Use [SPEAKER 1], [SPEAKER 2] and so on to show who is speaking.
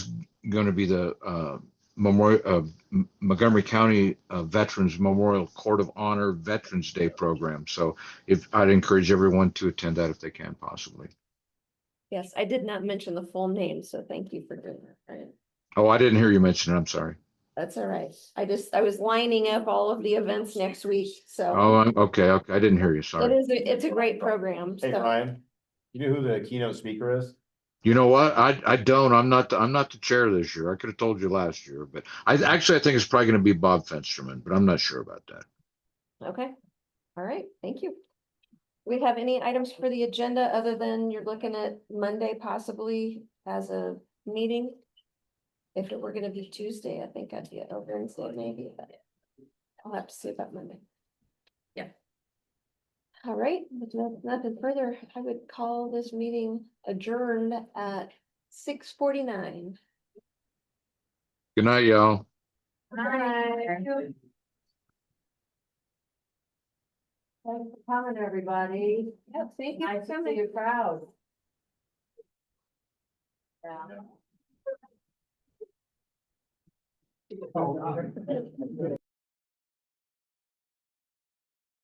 [SPEAKER 1] going to be the uh, Memorial uh, M- Montgomery County uh, Veterans Memorial Court of Honor Veterans Day program. So if I'd encourage everyone to attend that if they can possibly.
[SPEAKER 2] Yes, I did not mention the full name, so thank you for doing that. Right,
[SPEAKER 1] Oh, I didn't hear you mention it. I'm sorry.
[SPEAKER 2] that's all right. I just, I was lining up all of the events next week, so
[SPEAKER 1] Oh, I'm- okay, okay. I didn't hear you.
[SPEAKER 2] it
[SPEAKER 1] Oh, Sorry.
[SPEAKER 2] is, a- it's a great program,
[SPEAKER 3] Hey,
[SPEAKER 2] so.
[SPEAKER 3] Ryan, you know who the keynote speaker is?
[SPEAKER 1] You know what? I, I don't, I'm not, the- I'm not the chair this year. I could have told you last year, but I actually, I think it's probably going to be Bob Fensterman, but I'm not sure about that.
[SPEAKER 2] Okay, all right, thank you. We have any items for the agenda other than you're looking at Monday possibly as a meeting? If it were gonna be Tuesday, I think I'd be at over and say maybe, but I'll have to see about Monday. Yeah. All right, with no- nothing further, I would call this meeting adjourned at six forty-nine.
[SPEAKER 1] Good night, y'all.
[SPEAKER 2] Bye.
[SPEAKER 4] Thanks for coming, everybody.
[SPEAKER 2] Yep, thank you
[SPEAKER 4] Nice
[SPEAKER 2] for
[SPEAKER 4] to see
[SPEAKER 2] coming.
[SPEAKER 4] you crowd. Yeah.